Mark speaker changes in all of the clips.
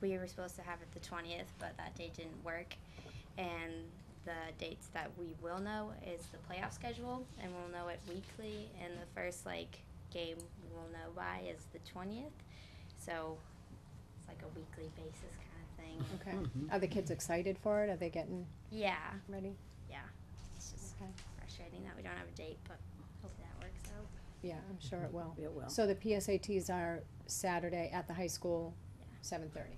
Speaker 1: we were supposed to have it the twentieth, but that date didn't work. And the dates that we will know is the playoff schedule, and we'll know it weekly. And the first like game we'll know by is the twentieth, so it's like a weekly basis kind of thing.
Speaker 2: Okay. Are the kids excited for it? Are they getting
Speaker 1: Yeah,
Speaker 2: ready?
Speaker 1: yeah. It's just
Speaker 2: Okay.
Speaker 1: frustrating that we don't have a date, but hopefully that works out.
Speaker 2: Yeah, I'm sure it will.
Speaker 3: It will.
Speaker 2: So the PSATs are Saturday at the high school,
Speaker 1: Yeah.
Speaker 2: seven thirty.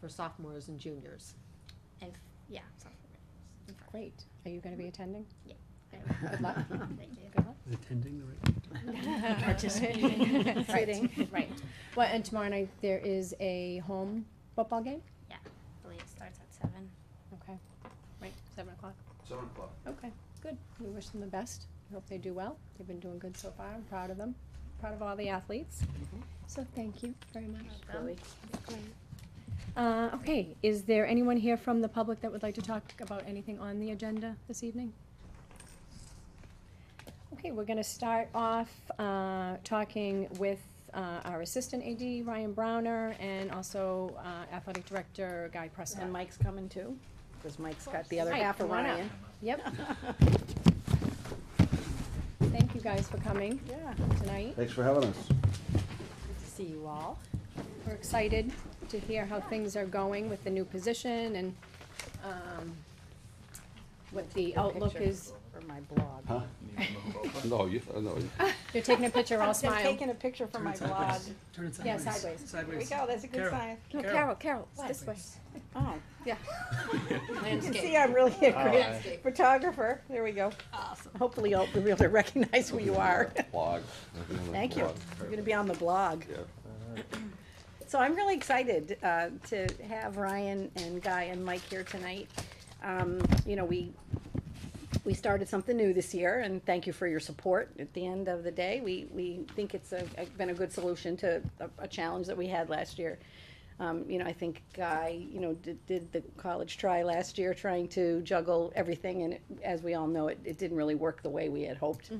Speaker 3: For sophomores and juniors.
Speaker 1: And f- yeah, sophomore. and freshmen.
Speaker 2: Great. Are you gonna be attending?
Speaker 1: Good
Speaker 2: luck.
Speaker 1: Thank you.
Speaker 2: Good luck.
Speaker 4: Is attending the right?
Speaker 3: Participating.
Speaker 2: Right, right. Well, and tomorrow night there is a home football game?
Speaker 1: I believe it starts at seven.
Speaker 2: Okay. Right, seven o'clock.
Speaker 5: Seven o'clock.
Speaker 2: Okay, good. We wish them the best. We hope they do well. They've been doing good so far. I'm proud of them. Proud of all the athletes. So thank you very much.
Speaker 1: Chloe.
Speaker 2: Uh, okay, is there anyone here from the public that would like to talk about anything on the agenda this evening? Okay, we're gonna start off, uh, talking with, uh, our assistant AD, Ryan Browner, and also, uh, athletic director, Guy Prescott.
Speaker 3: And Mike's coming too, because Mike's got the other
Speaker 2: Mike,
Speaker 3: half of
Speaker 2: come on up.
Speaker 3: Ryan.
Speaker 2: Yep, thank you guys for coming
Speaker 3: Yeah.
Speaker 2: tonight.
Speaker 5: Thanks for having us.
Speaker 3: See you all.
Speaker 2: We're excited to hear how things are going with the new position and, um, what the outlook
Speaker 3: picture
Speaker 2: is.
Speaker 3: For my blog.
Speaker 5: Huh? No, you, no. you-
Speaker 2: You're taking a picture, all
Speaker 6: I'm
Speaker 2: smile.
Speaker 6: taking a picture for my blog.
Speaker 4: Turn it
Speaker 2: Yeah,
Speaker 4: sideways.
Speaker 2: sideways.
Speaker 6: There we
Speaker 4: Sideways.
Speaker 6: go, that's a good
Speaker 4: Carol.
Speaker 6: sign.
Speaker 2: No,
Speaker 4: Carol.
Speaker 2: Carol, Carol, it's this way.
Speaker 3: Oh.
Speaker 2: Yeah.
Speaker 6: You can see I'm really a great photographer. There we go.
Speaker 3: Awesome. Hopefully you'll be able to recognize who you are.
Speaker 5: Blog.
Speaker 3: Thank you.
Speaker 5: Blog.
Speaker 3: You're gonna be on the blog.
Speaker 5: Yeah.
Speaker 3: So I'm really excited uh, to have Ryan and Guy and Mike here tonight. Um, You know, we, we started something new this year, and thank you for your support. At the end of the day, we, we think it's a, a- been a good solution to a- a challenge that we had last year. Um, You know, I think Guy, you know, did, did the college try last year, trying to juggle everything, and it- as we all know, it, it didn't really work the way we had hoped.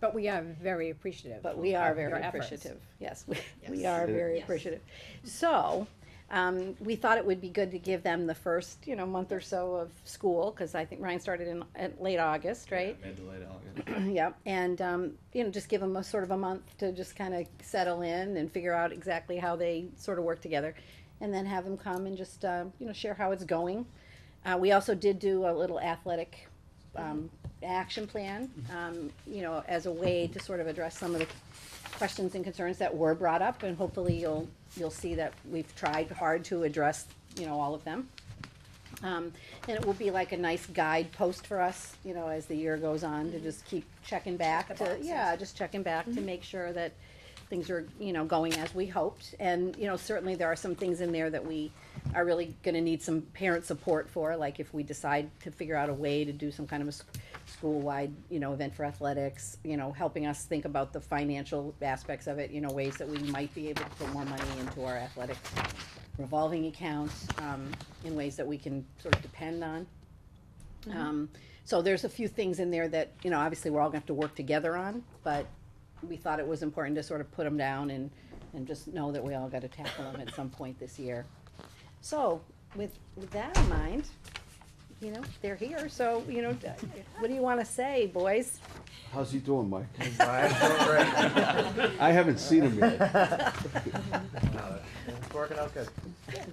Speaker 2: But we are very appreciative.
Speaker 3: But we are very
Speaker 2: your efforts.
Speaker 3: appreciative. Yes, we, we are
Speaker 5: It-
Speaker 3: very
Speaker 1: Yes.
Speaker 3: appreciative. So, um, we thought it would be good to give them the first, you know, month or so of school, cause I think Ryan started in, in late August, right?
Speaker 7: Mid to late August.
Speaker 3: Yep, and, um, you know, just give them a sort of a month to just kinda settle in and figure out exactly how they sort of work together. And then have them come and just, uh, you know, share how it's going. Uh, we also did do a little athletic, um, action plan, um, you know, as a way to sort of address some of the questions and concerns that were brought up, and hopefully you'll, you'll see that we've tried hard to address, you know, all of them. Um, and it will be like a nice guidepost for us, you know, as the year goes on, to just keep checking back to, yeah, just checking back to make sure that things are, you know, going as we hoped. And, you know, certainly there are some things in there that we are really gonna need some parent support for, like if we decide to figure out a way to do some kind of a s- school-wide, you know, event for athletics, you know, helping us think about the financial aspects of it, you know, ways that we might be able to put more money into our athletic revolving accounts, um, in ways that we can sort of depend on. Um, so there's a few things in there that, you know, obviously we're all gonna have to work together on, but we thought it was important to sort of put them down and, and just know that we all gotta tackle them at some point this year. So, with, with that in mind, you know, they're here, so, you know, d- what do you wanna say, boys?
Speaker 5: How's he doing, Mike? I haven't seen him yet.
Speaker 8: It's working out good.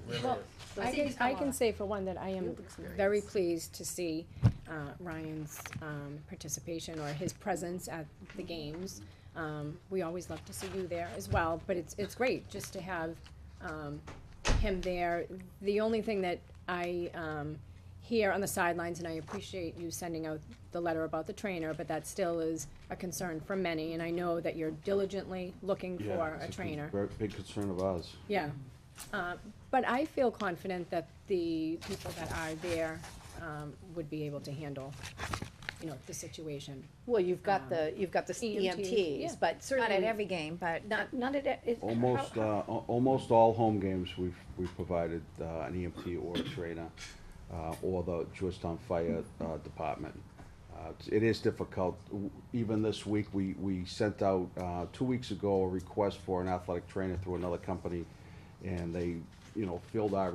Speaker 8: Really
Speaker 2: Well,
Speaker 8: is.
Speaker 2: I can, I can say for one that I am very pleased to see, uh, Ryan's, um, participation or his presence at the games. Um, we always love to see you there as well, but it's, it's great just to have, um, him there. The only thing that I, um, hear on the sidelines, and I appreciate you sending out the letter about the trainer, but that still is a concern for many, and I know that you're diligently looking
Speaker 5: Yeah,
Speaker 2: for
Speaker 5: it's
Speaker 2: a trainer.
Speaker 5: Very big concern of ours.
Speaker 2: Yeah, uh, but I feel confident that the people that are there, um, would be able to handle, you know, the situation.
Speaker 3: Well, you've got
Speaker 2: Um,
Speaker 3: the, you've got the
Speaker 2: EMTs, yeah.
Speaker 3: EMTs, E but certainly.
Speaker 6: Not at every game, but
Speaker 3: Not, not at, e- it-
Speaker 5: Almost,
Speaker 3: how-
Speaker 5: uh, al- almost all home games, we've, we've provided, uh, an EMT or a trainer, uh, or the Georgetown Fire, uh, Department. Uh, it's- it is difficult, W- even this week, we, we sent out, uh, two weeks ago, a request for an athletic trainer through another company, and they you know, filled our